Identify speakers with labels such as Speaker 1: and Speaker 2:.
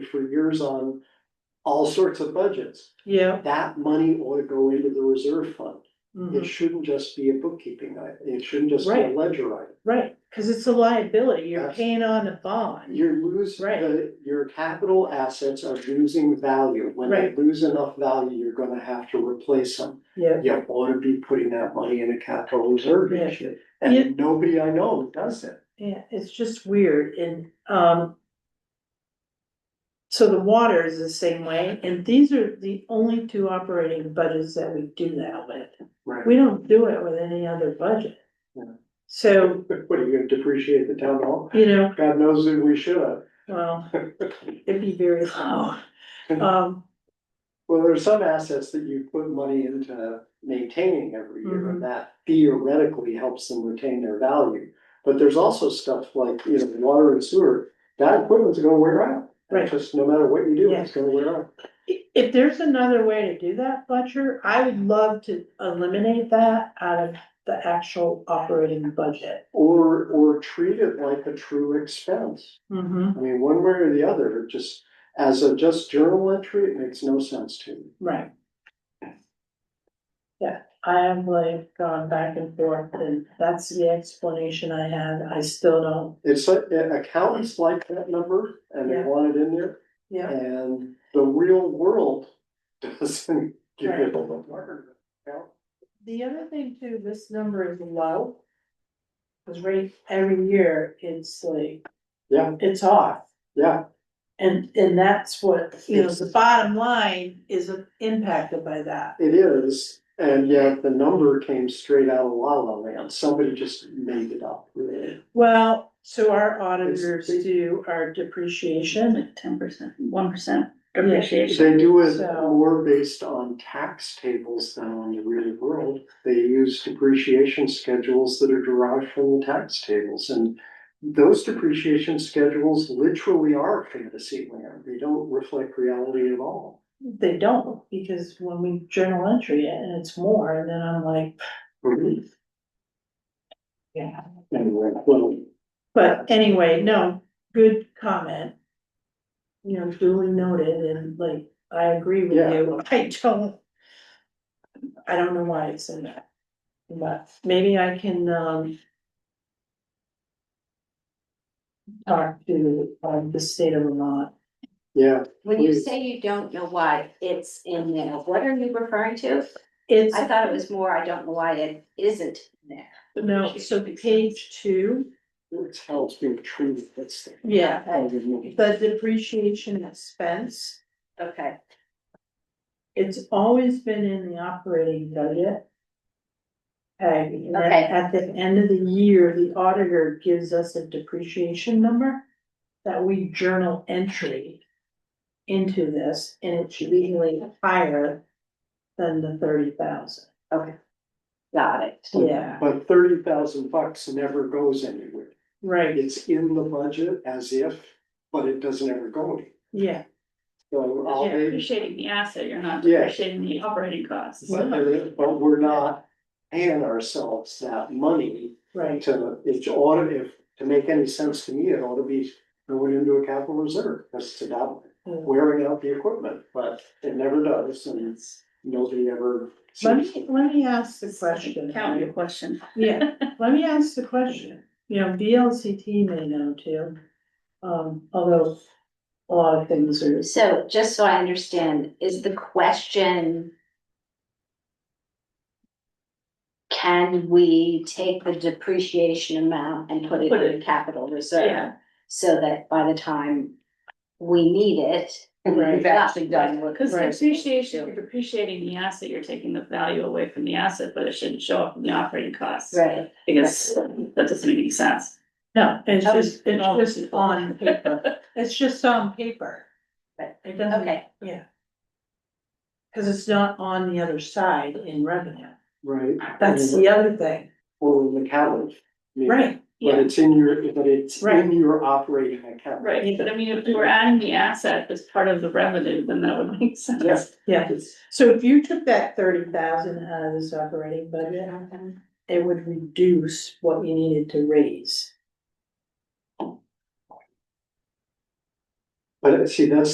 Speaker 1: for years on all sorts of budgets.
Speaker 2: yeah.
Speaker 1: That money ought to go into the reserve fund. It
Speaker 2: mhm.
Speaker 1: shouldn't just be a bookkeeping item. It shouldn't just be a
Speaker 2: Right.
Speaker 1: ledger item.
Speaker 2: Right, cause it's a liability, you're
Speaker 1: Yes.
Speaker 2: paying on a bond,
Speaker 1: You lose,
Speaker 2: Right.
Speaker 1: the- your capital assets are losing value. When they
Speaker 2: Right.
Speaker 1: lose enough value, you're gonna have to replace them.
Speaker 2: yeah.
Speaker 1: You ought to be putting that money in a capital reserve
Speaker 2: Yeah.
Speaker 1: each year.
Speaker 2: Yeah.
Speaker 1: And nobody I know does it.
Speaker 2: Yeah, it's just weird and, um. So the water is the same way, and these are the only two operating budgets that we do that with.
Speaker 1: Right.
Speaker 2: We don't do it with any other budget.
Speaker 1: Yeah.
Speaker 2: So,
Speaker 1: What, are you gonna depreciate the town hall?
Speaker 2: you know,
Speaker 1: God knows that we should have.
Speaker 2: well, it'd be very low. Um,
Speaker 1: Well, there's some assets that you put money into maintaining every year,
Speaker 2: Mhm.
Speaker 1: and that theoretically helps them retain their value. But there's also stuff like, you know, water and sewer, that equipment's gonna wear out.
Speaker 2: Right.
Speaker 1: Just no matter what you do, it's
Speaker 2: Yes.
Speaker 1: gonna wear out.
Speaker 2: i- if there's another way to do that, Fletcher, I would love to eliminate that out of the actual operating budget.
Speaker 1: Or, or treat it like a true expense.
Speaker 2: Mm-hmm.
Speaker 1: I mean, one way or the other, just as a just journal entry, it makes no sense to me.
Speaker 2: Right. Yeah, I have like gone back and forth, and that's the explanation I had, I still don't,
Speaker 1: It's, like, uh, accountants like that number and they
Speaker 2: Yeah.
Speaker 1: want it in there.
Speaker 2: yeah,
Speaker 1: And the real world doesn't give it a word.
Speaker 2: The other thing too, this number is low. Cause right, every year, it's like.
Speaker 1: Yeah.
Speaker 2: It's off,
Speaker 1: Yeah,
Speaker 2: and, and that's what, you know, the bottom line is impacted by that.
Speaker 1: it is, and yet the number came straight out of La La Land, somebody just made it up.
Speaker 2: Well, so our auditors do our depreciation,
Speaker 3: Like ten percent, one percent
Speaker 2: Yeah.
Speaker 3: depreciation.
Speaker 1: They do it
Speaker 2: So-
Speaker 1: more based on tax tables than on the real world, they use depreciation schedules that are derived from the tax tables and. Those depreciation schedules literally are fantasy land, they don't reflect reality at all.
Speaker 2: they don't, because when we journal entry it, and it's more, and then I'm like, Mm-hmm. yeah.
Speaker 1: Anyway, well,
Speaker 2: But anyway, no, good comment. You know, duly noted, and like, I agree with
Speaker 1: Yeah.
Speaker 2: you, I don't. I don't know why it's in that, but maybe I can, um. Talk to, um, the state of Vermont,
Speaker 1: yeah,
Speaker 4: When you
Speaker 1: Please.
Speaker 4: say you don't know why it's in there, what are you referring to?
Speaker 2: it's.
Speaker 4: I thought it was more, I don't know why it isn't in there.
Speaker 2: No, so page two,
Speaker 1: it's how it's being treated, that's the.
Speaker 2: yeah,
Speaker 1: But
Speaker 2: the depreciation expense.
Speaker 4: Okay,
Speaker 2: It's always been in the operating budget. Peg, and then
Speaker 4: Okay.
Speaker 2: at the end of the year, the auditor gives us a depreciation number that we journal entry into this, and it's usually higher than the thirty thousand.
Speaker 4: got it.
Speaker 2: Yeah,
Speaker 1: thirty thousand bucks never goes anywhere.
Speaker 2: right,
Speaker 1: It's in the budget as if, but it doesn't ever go anywhere.
Speaker 2: yeah,
Speaker 1: So all
Speaker 3: You're
Speaker 1: they,
Speaker 3: depreciating the asset, you're not
Speaker 1: Yeah.
Speaker 3: depreciating the operating costs.
Speaker 1: but they're- but we're not paying ourselves that money
Speaker 2: right,
Speaker 1: to, it ought to, if, to make any sense to me, it ought to be going into a capital reserve, because it's about
Speaker 2: Let
Speaker 1: wearing out the equipment, but it never does, and nobody ever. sees
Speaker 2: me, let me ask the question.
Speaker 3: Count your question.
Speaker 2: Yeah, let me ask the question, you know, VLCT may know too, um, although a lot of things are.
Speaker 4: So just so I understand, is the question. Can we take the depreciation amount and put it
Speaker 3: Put
Speaker 4: in
Speaker 3: it-
Speaker 4: capital reserve?
Speaker 3: Yeah.
Speaker 4: So that by the time we need it.
Speaker 2: Right.
Speaker 4: we've actually done what-
Speaker 3: Because
Speaker 2: Right.
Speaker 3: depreciation, you're depreciating the asset, you're taking the value away from the asset, but it shouldn't show up in the operating costs.
Speaker 4: Right,
Speaker 3: Because that doesn't make any sense.
Speaker 2: No, it's
Speaker 4: Oh,
Speaker 3: That
Speaker 2: just,
Speaker 3: was
Speaker 2: it's
Speaker 3: wrong.
Speaker 2: just on paper, it's just on paper.
Speaker 4: Right.
Speaker 2: It doesn't,
Speaker 4: okay,
Speaker 2: yeah. Cause it's not on the other side in revenue,
Speaker 1: Right.
Speaker 2: that's the other thing,
Speaker 1: Or the calendar.
Speaker 2: right,
Speaker 1: But
Speaker 3: Yeah,
Speaker 1: it's in your, but it's
Speaker 2: Right.
Speaker 1: in your operating account.
Speaker 3: right. But I mean, if we were adding the asset as part of the revenue, then that would make
Speaker 1: Yeah.
Speaker 3: sense.
Speaker 2: yeah.
Speaker 1: It's-
Speaker 2: So if you took that thirty thousand out of this operating budget, it would reduce what you needed to raise.
Speaker 1: But see, that's